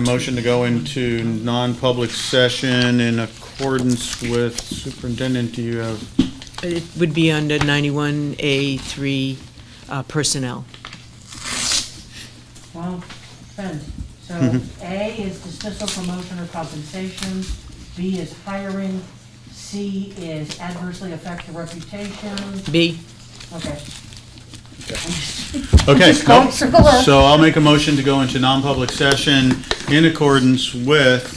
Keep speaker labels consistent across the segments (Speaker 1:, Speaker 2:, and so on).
Speaker 1: motion to go into non-public session in accordance with superintendent, do you have?
Speaker 2: It would be under 91A3 uh, personnel.
Speaker 3: Well, friends, so
Speaker 1: Mhm.
Speaker 3: A is dismissal, promotion, or compensation. B is hiring. C is adversely affect the reputation.
Speaker 2: B,
Speaker 3: Okay.
Speaker 1: Okay,
Speaker 3: Just going
Speaker 1: nope.
Speaker 3: circle around.
Speaker 1: so I'll make a motion to go into non-public session in accordance with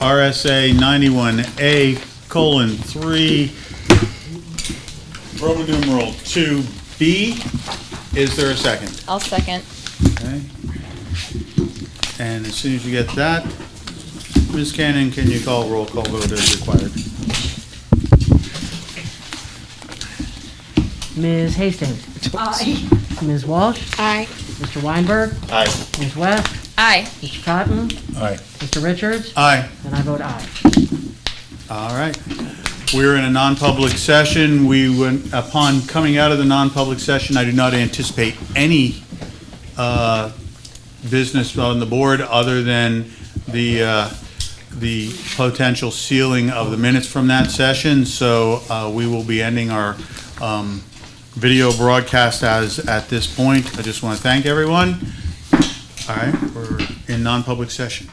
Speaker 1: RSA ninety-one A colon three, Roman numeral two B. Is there a second?
Speaker 4: I'll second.
Speaker 1: Okay. And as soon as you get that, Ms. Cannon, can you call roll call vote as required?
Speaker 3: Ms. Hastings? Aye. Ms. Walsh?
Speaker 4: Aye.
Speaker 3: Mr. Weinberg?
Speaker 1: Aye.
Speaker 3: Ms. West?
Speaker 4: Aye.
Speaker 3: Mr. Cotton?
Speaker 1: Aye.
Speaker 3: Mr. Richards?
Speaker 1: Aye.
Speaker 3: And I vote aye.
Speaker 1: All right. We're in a non-public session. We, went- upon coming out of the non-public session, I do not anticipate any uh, business on the board other than the, uh, the potential sealing of the minutes from that session. So uh, we will be ending our um, video broadcast as, at this point. I just want to thank everyone. All right, we're in non-public session.